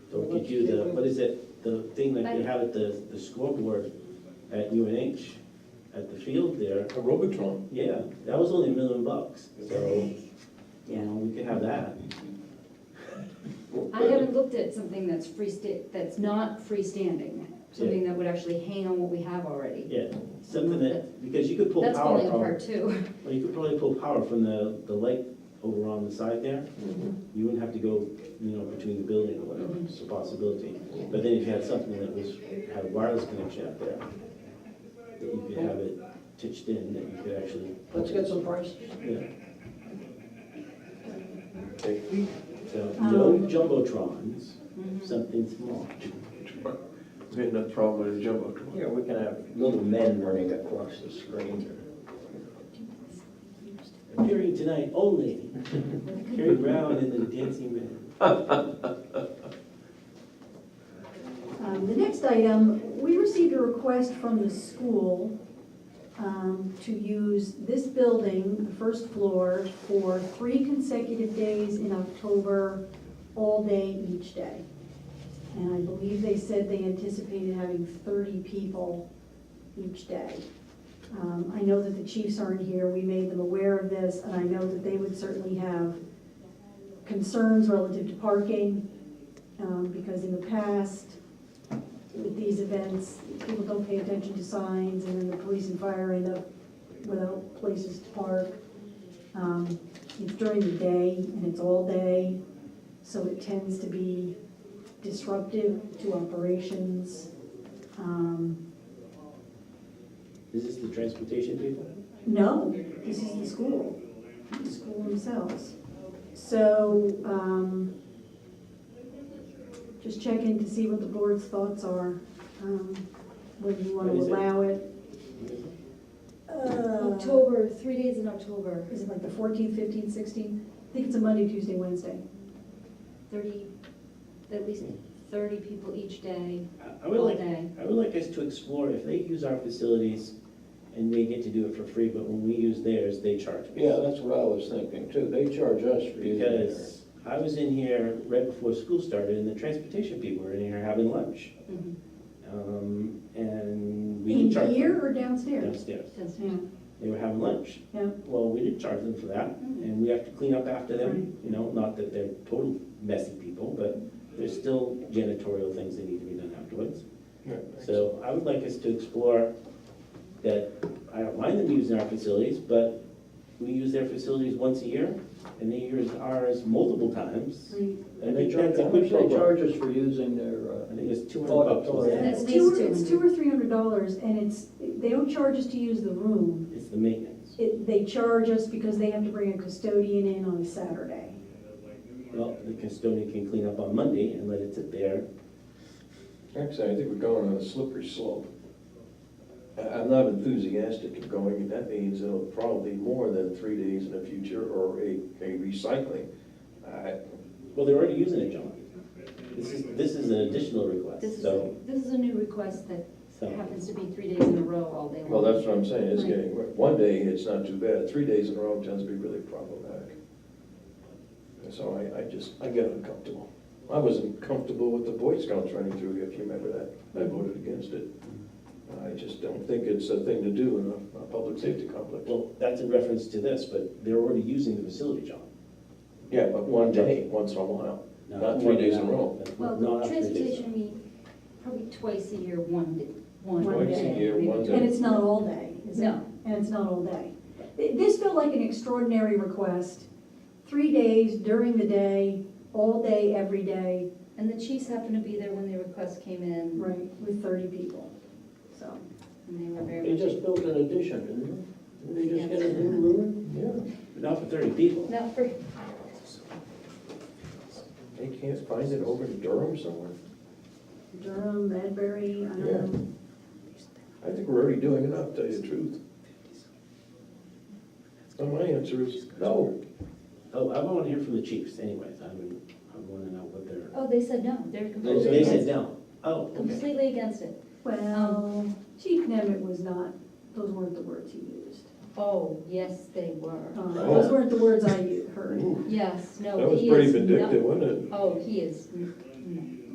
do the, what is it, the thing that they have at the, the scoreboard at UNH, at the field there, Robotron. yeah, that was only a million bucks, so, you Yeah. know, we could have that. I haven't looked at something that's freesta, that's not freestanding, something that would actually hang on what we have already. Yeah, something that, because you could pull That's power falling apart from, too. well, you could probably pull power from the, the light over on the side there. You wouldn't have to go, you know, between the building or whatever, it's a possibility. But then if you had something that was, had a wireless connection out there, that you could have it titched in, that you could actually, Let's get some prices. yeah. Okay. So, no jumbotrons, something small. We had no problem with the Jumbotron. Yeah, we can have little men running across the screen. Appearing tonight only, Carrie Brown and the Dancing Man. Um, The next item, we received a request from the school um, to use this building, the first floor, for three consecutive days in October, all day each day. And I believe they said they anticipated having 30 people each day. Um, I know that the chiefs aren't here, we made them aware of this, and I know that they would certainly have concerns relative to parking, um, because in the past, with these events, people don't pay attention to signs, and then the police and fire end up without places to park. Um, It's during the day, and it's all day, so it tends to be disruptive to operations. Um, Is this the transportation people? No, this is the school, the school themselves. So, um, just check in to see what the board's thoughts are, um, whether you want What to is it? allow it. October, October, three days in October, is it like the fourteenth, fifteenth, sixteenth? I think it's a Monday, Tuesday, Wednesday. thirty, at least thirty people each day, I- I would all like day. I would like us to explore if they use our facilities and they get to do it for free, but when we use theirs, they charge us. Yeah, that's what I was thinking too. They charge us for using theirs. Because I was in here right before school started and the transportation people were in here having lunch. Mhm. Um, and we In didn't charge them here or downstairs? downstairs. That's- Yeah, They were having lunch. yeah. Well, we didn't charge them for that and we have to clean up after them, you know, not that they're total messy people, but there's still janitorial things that need to be done afterwards. So I would like us to explore that, I don't mind them using our facilities, but we use their facilities once a year, and they use ours multiple times. Right. I And they think charge, that's a how good much they program. charge us for using their, I uh, think it's two hundred bucks. was it? Auditorium. That's It's two, or- nice, it's too. two or three hundred dollars, and it's, they don't charge us to use the room. It's the maintenance. It, they charge us because they have to bring a custodian in on a Saturday. Well, the custodian can clean up on Monday and let it sit there. Actually, I think we're going on a slippery slope. I- I'm not enthusiastic of going, and that means it'll probably be more than three days in the future or a, a recycling. I- Well, they're already using it, John. This is, this is an additional This request, is, so, this is a new request that so, happens to be three days in a row all day long. Well, that's what I'm saying, it's getting, one day it's not too bad, three days in a row tends to be really problematic. And So I, I just, I get uncomfortable. I wasn't comfortable with the Boy Scouts running through, here, if you remember that, I voted against it. I just don't think it's a thing to do in a, a public safety complex. well, that's in reference to this, but they're already using the facility, John. Yeah, but one day, once in a while. No, Not three days in a row. That's Well, not the three days in a row. transportation meet probably twice a year, one day. One Twice a day, year, maybe. one day. And it's not all day, is it? No. And it's not all day. Th- This felt like an extraordinary request. Three days during the day, all day, every day, And the chiefs happened to be there when the request came in, right, with thirty people, so. and they were very they much. just built an addition, didn't they? They just get a new room? Yeah, But not for thirty people. Not for, they can't find it over in Durham somewhere. Durham, Medbury, I Yeah. don't know. I think we're already doing enough, to tell you the truth. So my answer is no. Oh, I want to hear from the chiefs anyways, I mean, I want to know what they're, oh, they said no, they're so completely they said against, no. Oh, okay. completely against it. Well, Chief Nemeth was not, those weren't the words he used. Oh, yes, they were. Uh, Those weren't the words I u- heard. Ooh, Yes, no, That was Oh, he pretty is no- vindictive, wasn't it? Oh, he is, mm,